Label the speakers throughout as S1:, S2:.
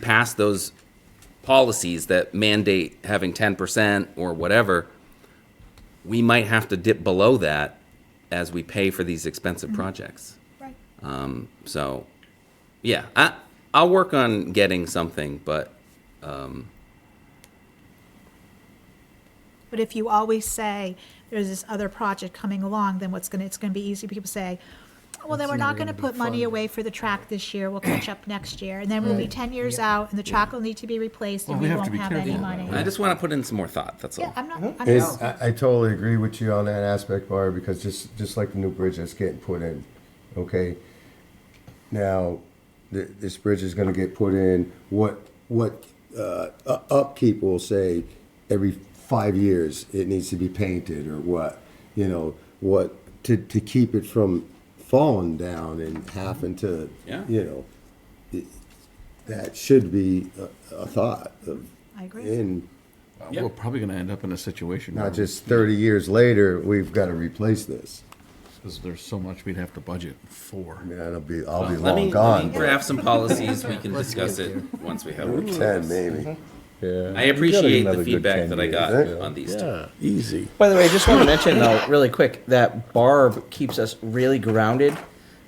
S1: pass those policies that mandate having ten percent or whatever, we might have to dip below that as we pay for these
S2: Mm-hmm.
S1: expensive projects.
S2: Right.
S1: Um, so, yeah, I, I'll work on getting something, but
S2: But if you always say, there's this other project coming along, then what's gonna, it's gonna be easy, for people to say, well, then
S3: It's
S2: we're
S3: never
S2: not gonna
S3: gonna be
S2: put money
S3: funded."
S2: away for the track this year, we'll catch up next year, and then we'll be
S3: Right.
S2: ten years out, and the track will need to be replaced, and
S3: Well,
S2: we
S3: we have to
S2: won't
S3: be
S2: have any
S3: careful about
S2: money.
S1: I just want to put in some more thought, that's
S2: Yeah,
S1: all.
S2: I'm
S3: Uh-huh.
S2: not, I'm
S4: And
S2: not,
S4: I, I totally agree with you on that aspect, Barb, because just, just like the new bridge that's getting put in, okay? Now, th- this bridge is gonna get put in, what, what, uh, u- upkeep will say every five years it needs to be painted or what? You know, what, to, to keep it from falling down and having to,
S1: Yeah.
S4: you know, it- that should be a, a thought of,
S2: I agree.
S4: and
S1: Yeah.
S3: We're probably gonna end up in a situation. where-
S4: not just 30 years later, we've got to replace this.
S3: Because there's so much we'd have to budget for.
S4: I mean, I'll be, I'll be
S1: Let
S4: long
S1: me, let
S4: gone.
S1: me
S4: but
S1: draft some policies, we can discuss it once we have. our
S4: 10
S1: policies.
S4: maybe.
S5: Yeah.
S1: Mm-hmm. I appreciate the
S4: another good
S1: feedback
S4: 10
S1: that I
S4: years,
S1: got
S4: eh?
S1: on these two.
S5: Yeah. Easy.
S6: By the way, I just want to mention though, really quick, that Barb keeps us really grounded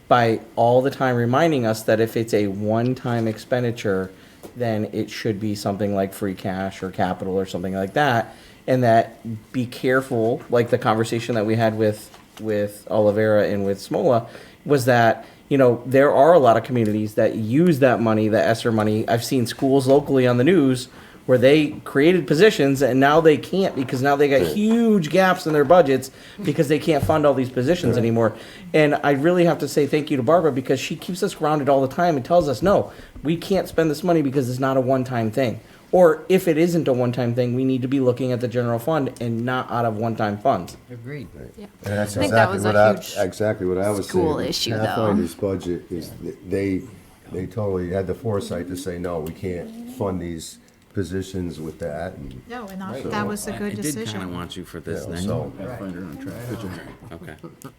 S6: by all the time reminding us that if it's a one-time expenditure, then it should be something like free cash or capital or something like that. And that be careful, like the conversation that we had with, with Olivera and with Smola, was that, you know, there are a lot of communities that use that money, the ESSER money. I've seen schools locally on the news where they created positions and now they can't because now they got huge gaps in their budgets because they can't fund all these positions anymore. And I really have to say thank you to Barbara because she keeps us grounded all the time and tells us, no, we can't spend this money because it's not a one-time thing. Or if it isn't a one-time thing, we need to be looking at the general fund and not out of one-time funds.
S7: Agreed. Yeah.
S4: And that's
S7: I think that
S4: exactly
S7: was
S4: what
S7: a
S4: I,
S7: huge
S4: exactly what I was saying.
S7: school issue, though.
S4: Pathfinder's budget is, th- they, they totally had the foresight to say, no, we can't fund these positions with that. and,
S2: No, and that- that was a
S1: I-
S2: good
S1: I did kind of
S2: decision.
S1: want you for
S4: you
S1: this
S4: know,
S1: next
S4: So,
S1: one.
S3: Pathfinder on track. Good job.
S1: Okay.
S2: Um,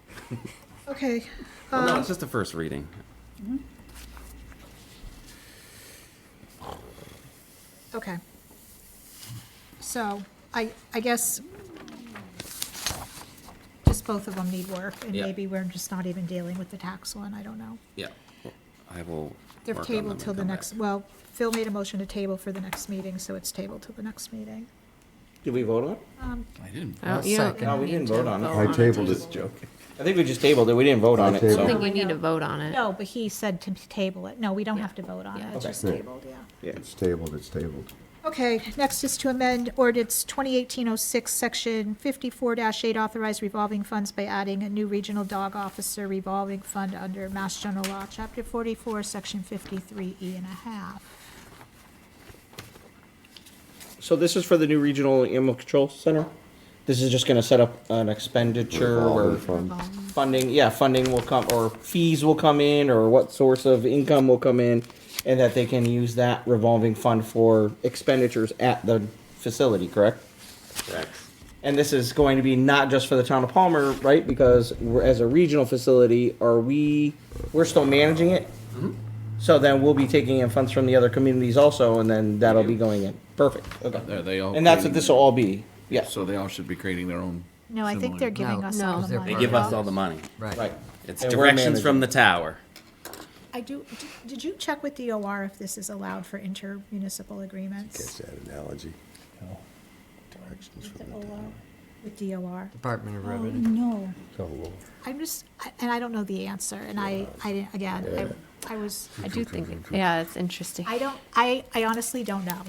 S2: Okay, um,
S1: Well, no, it's just the first reading.
S2: okay. So, I, I guess just both of them need work, and
S1: Yeah.
S2: maybe we're just not even dealing with the tax one, I don't know.
S1: Yeah. I will.
S2: They're
S1: work on them
S2: tabled
S1: and
S2: till the
S1: come
S2: next,
S1: back.
S2: well, Phil made a motion to table for the next meeting, so it's tabled till the next meeting.
S6: Did we vote on it?
S2: Um,
S3: I didn't.
S2: Oh,
S7: I don't- Oh, you don't
S6: No, we
S7: need
S6: didn't
S7: to
S6: vote on it.
S4: I tabled it.
S6: I think we just tabled it. We didn't vote on it,
S7: I don't think
S6: so.
S7: you need to vote on it.
S2: No, but he said to table it. No, we don't have to vote on it, it's
S7: Yeah.
S2: just
S4: Okay.
S2: tabled, yeah.
S4: It's tabled, it's tabled.
S2: Okay, next is to amend ordinance 2018-06, section 54-8, authorize revolving funds by adding a new regional dog officer revolving fund under Mass General Law, Chapter 44, Section 53E and a half.
S6: So this is for the new regional animal control center? This is just gonna set up an expenditure
S4: Revolving
S6: where
S4: fund.
S6: funding, yeah, funding will come, or fees will come in, or what source of income will come in, and that they can use that revolving fund for expenditures at the facility, correct? And this is going to be not just for the town of Palmer, right? Because we're, as a regional facility, are we, we're still managing it?
S1: Mm-hmm.
S6: So then we'll be taking in funds from the other communities also, and then that'll be going in. Perfect, okay.
S3: Are they all?
S6: And that's what
S3: creating-
S6: this will all be, yes,
S3: So they all should be creating their own.
S2: No, I think they're
S3: similar-
S2: giving
S7: No,
S2: us all
S7: no.
S2: the
S7: They
S2: money.
S1: They give us all the money.
S6: right.
S1: It's
S6: And we're
S1: directions from
S6: managing.
S1: the tower.
S2: I do, did- did you check with DOR if this is allowed for intermunicipal
S4: Catch
S2: agreements?
S4: that analogy. Directions from the town.
S2: With DOR?
S7: Department of
S2: Oh, no.
S4: Oh, Lord.
S2: I'm just, I- and I don't know the answer, and I, I, didn't- again, I I was,
S7: I do think, yeah, it's interesting.
S2: I don't, I, I honestly don't know.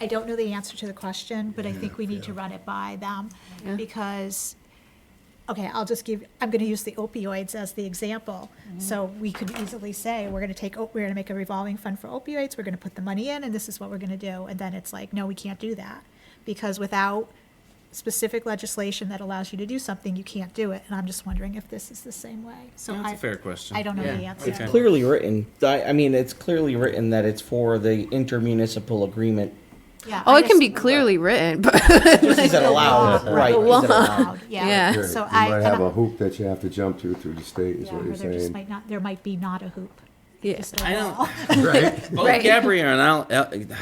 S2: I don't know the answer to the question, but I think we need to run it by them,
S7: Yeah.
S2: because, okay, I'll just give, I'm gonna use the opioids as the example.
S7: Mm-hmm.
S2: So we could easily say, we're gonna take, o- we're gonna make a revolving fund for opioids, we're gonna put the money in, and this is what we're gonna do, and then it's like, no, we can't do that. Because without specific legislation that allows you to do something, you can't do it, and I'm just wondering if this is the same way, so
S1: That's
S2: I,
S1: a fair question.
S2: I don't know the
S7: Yeah.
S2: answer.
S1: Okay.
S6: Clearly written, I, I mean, it's clearly written that it's for the intermunicipal agreement.
S2: Yeah,
S7: Oh,
S2: I
S7: it can
S2: just-
S7: be clearly written, but
S6: Just is it allowed, right? is it allowed?
S7: Yeah.
S4: Yeah,
S2: So
S4: You
S2: I,
S4: might
S2: and
S4: have
S2: I-
S4: a hoop that you have to jump to through the state, is
S2: yeah,
S4: what
S2: or
S4: you're
S2: there just
S4: saying.
S2: might not, there might be not a hoop. Yeah.
S8: just a
S1: I don't-
S8: wall.
S9: right?
S1: Both
S2: Right.
S1: Gabrielle and uh, I'll,